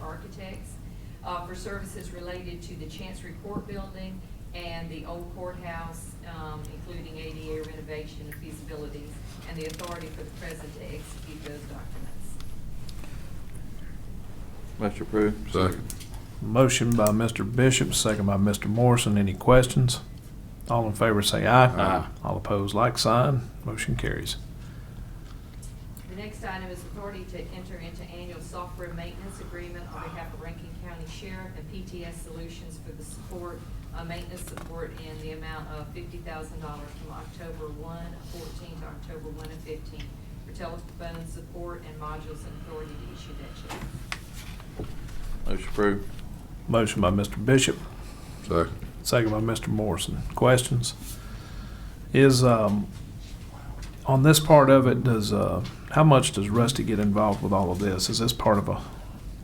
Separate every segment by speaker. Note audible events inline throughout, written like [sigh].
Speaker 1: Architects uh, for services related to the Chancery Court Building and the old courthouse, um, including ADA renovation and feasibilities, and the authority for the president to execute those documents.
Speaker 2: Motion approved.
Speaker 3: Second.
Speaker 4: Motion by Mr. Bishop, second by Mr. Morrison. Any questions? All in favor say aye.
Speaker 3: Aye.
Speaker 4: All opposed, like sign. Motion carries.
Speaker 1: The next item is authority to enter into annual software maintenance agreement on behalf of Rankin County Sheriff and PTS Solutions for the support, uh, maintenance support in the amount of fifty thousand dollars from October 1, 14 to October one of fifteen for telephone support and modules and authority to issue that check.
Speaker 2: Motion approved.
Speaker 4: Motion by Mr. Bishop,
Speaker 3: Second.
Speaker 4: second by Mr. Morrison. Questions? Is, um, on this part of it, does, uh, how much does Rusty get involved with all of this? Is this part of a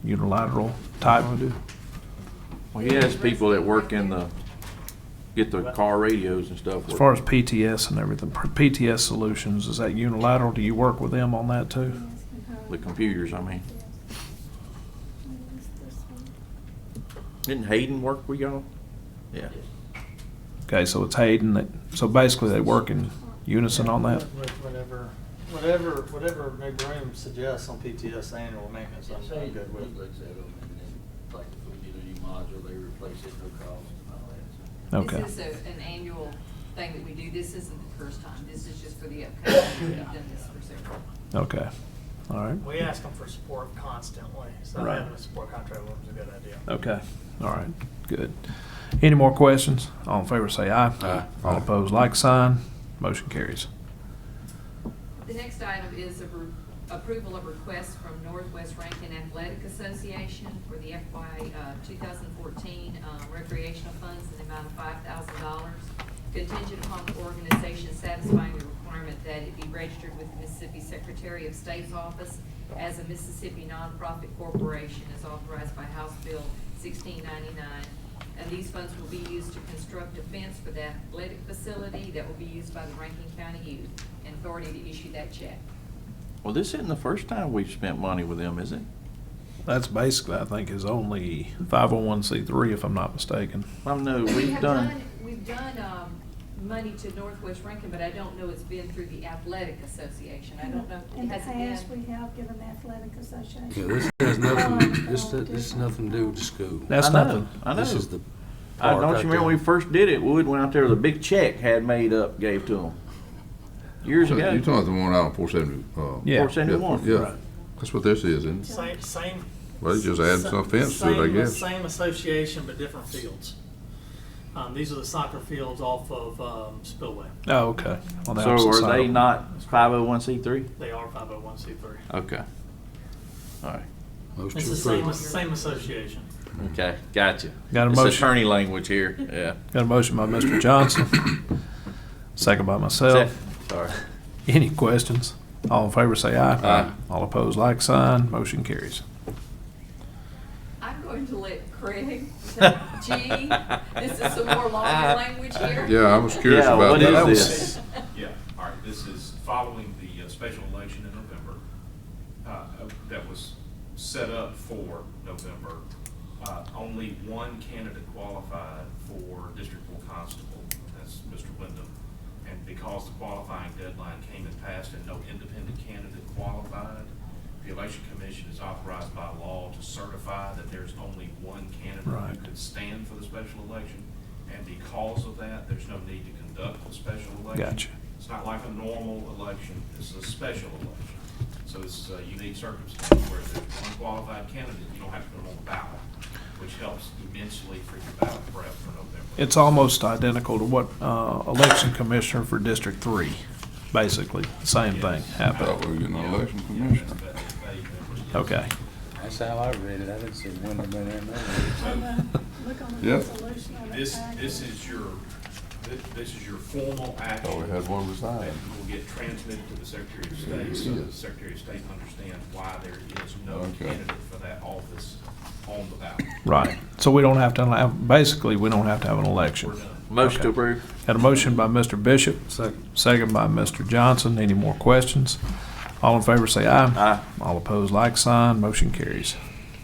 Speaker 4: unilateral type?
Speaker 2: Well, he has people that work in the, get the car radios and stuff.
Speaker 4: As far as PTS and everything, PTS Solutions, is that unilateral? Do you work with them on that too?
Speaker 2: The computers, I mean. Didn't Hayden work with y'all? Yeah.
Speaker 4: Okay, so it's Hayden that, so basically they work in unison on that?
Speaker 5: Whatever, whatever, whatever Big Room suggests on PTS annual maintenance, I'm I'm good with.
Speaker 6: Looks at them, and then, like, if we need a new module, they replace it, no cost, and all that.
Speaker 4: Okay.
Speaker 1: This is a- an annual thing that we do. This isn't the first time. This is just for the upcoming. We've done this for several.
Speaker 4: Okay, all right.
Speaker 5: We ask them for support constantly, so
Speaker 4: Right.
Speaker 5: having a support contract with them is a good idea.
Speaker 4: Okay, all right, good. Any more questions? All in favor say aye.
Speaker 3: Aye.
Speaker 4: All opposed, like sign. Motion carries.
Speaker 1: The next item is a re- approval of request from Northwest Rankin Athletic Association for the FY uh, 2014 uh, recreational funds in the amount of $5,000 contingent upon the organization satisfying the requirement that it be registered with the Mississippi Secretary of State's office as a Mississippi nonprofit corporation as authorized by House Bill 1699 and these funds will be used to construct a fence for the athletic facility that will be used by the Rankin County Youth and authority to issue that check.
Speaker 2: Well, this isn't the first time we've spent money with them, is it?
Speaker 4: That's basically, I think, his only 501c3, if I'm not mistaken.
Speaker 2: I know,
Speaker 1: We
Speaker 2: we've
Speaker 1: have
Speaker 2: done,
Speaker 1: We've done, um, money to Northwest Rankin, but I don't know it's been through the athletic association. I don't know,
Speaker 7: In the
Speaker 1: has it
Speaker 7: past, we
Speaker 1: been?
Speaker 7: have given the athletic association.
Speaker 6: Yeah, this has nothing, this,
Speaker 7: Um,
Speaker 6: this has nothing to do with the school.
Speaker 4: That's
Speaker 2: I know,
Speaker 4: nothing.
Speaker 2: I know.
Speaker 6: This is the
Speaker 2: I
Speaker 6: park
Speaker 2: don't you
Speaker 6: right
Speaker 2: remember
Speaker 6: there.
Speaker 2: when we first did it, Wood went out there with a big check had made up, gave to them. Years
Speaker 3: So
Speaker 2: ago.
Speaker 3: You're talking about the one out on four seventy, uh.
Speaker 4: Yeah.
Speaker 2: Four seventy-one.
Speaker 3: Yeah, that's what this is, isn't it?
Speaker 5: Same, same.
Speaker 3: Well, you just add some fence to it, I
Speaker 5: same-
Speaker 3: guess.
Speaker 5: Same association, but different fields. Um, these are the soccer fields off of, um, Spillway.
Speaker 4: Oh, okay. On the
Speaker 2: So
Speaker 4: opposite
Speaker 2: are
Speaker 4: side.
Speaker 2: they not five oh one C three?
Speaker 5: They are five oh one C three.
Speaker 2: Okay. All right.
Speaker 6: Motion
Speaker 5: It's the same,
Speaker 6: approved.
Speaker 5: same association.
Speaker 2: Okay, gotcha.
Speaker 4: Got a
Speaker 2: It's
Speaker 4: motion.
Speaker 2: attorney language here, yeah.
Speaker 4: Got a motion by Mr. Johnson, second by myself.
Speaker 2: Sorry.
Speaker 4: Any questions? All in favor say aye.
Speaker 2: Aye.
Speaker 4: All opposed, like sign. Motion carries.
Speaker 1: I'm going to let
Speaker 7: [laughs]
Speaker 1: Craig, G, this is some more
Speaker 2: [laughs]
Speaker 1: longer language here.
Speaker 3: Yeah, I was curious
Speaker 2: Yeah,
Speaker 3: about
Speaker 2: what
Speaker 3: that.
Speaker 2: is
Speaker 3: That was-
Speaker 2: this?
Speaker 1: [laughs]
Speaker 8: Yeah, all right, this is following the uh, special election in November, uh, that was set up for November. Uh, Only one candidate qualified for District Four Constable, and that's Mr. Wyndham. And because the qualifying deadline came and passed and no independent candidate qualified, the Election Commission is authorized by law to certify that there's only one candidate
Speaker 4: Right.
Speaker 8: who could stand for the special election. And because of that, there's no need to conduct the special election election.
Speaker 4: Gotcha.
Speaker 8: It's not like a normal election, this is a special election. So this is a unique circumstance where there's one qualified candidate, you don't have to put them on the ballot, which helps immensely for your ballot prep for November.
Speaker 4: It's almost identical to what uh, election commissioner for District Three, basically, same thing
Speaker 3: I thought
Speaker 4: happened.
Speaker 3: we were getting an election
Speaker 8: Yeah, that's-
Speaker 3: commissioner.
Speaker 8: that's vague, that was-
Speaker 4: Okay,
Speaker 6: That's how I read it. I didn't see Wyndham in there. no.
Speaker 7: Hold on, uh, Look on the
Speaker 3: Yep.
Speaker 7: resolution on the
Speaker 8: This,
Speaker 7: packet.
Speaker 8: this is your, thi- this is your formal
Speaker 3: Oh,
Speaker 8: action
Speaker 3: we had one resign.
Speaker 8: that will get transmitted to the Secretary of State, so the Secretary of State understands why there is no
Speaker 3: Okay.
Speaker 8: candidate for that office on the ballot.
Speaker 4: right. So we don't have to, have- basically, we don't have to have an
Speaker 8: We're
Speaker 4: election.
Speaker 8: done.
Speaker 2: Motion to
Speaker 4: Okay.
Speaker 2: approve.
Speaker 4: Got a motion by Mr. Bishop. Second. Second by Mr. Johnson. Any more questions? All in favor say aye.
Speaker 2: Aye.
Speaker 4: All opposed, like sign. Motion carries.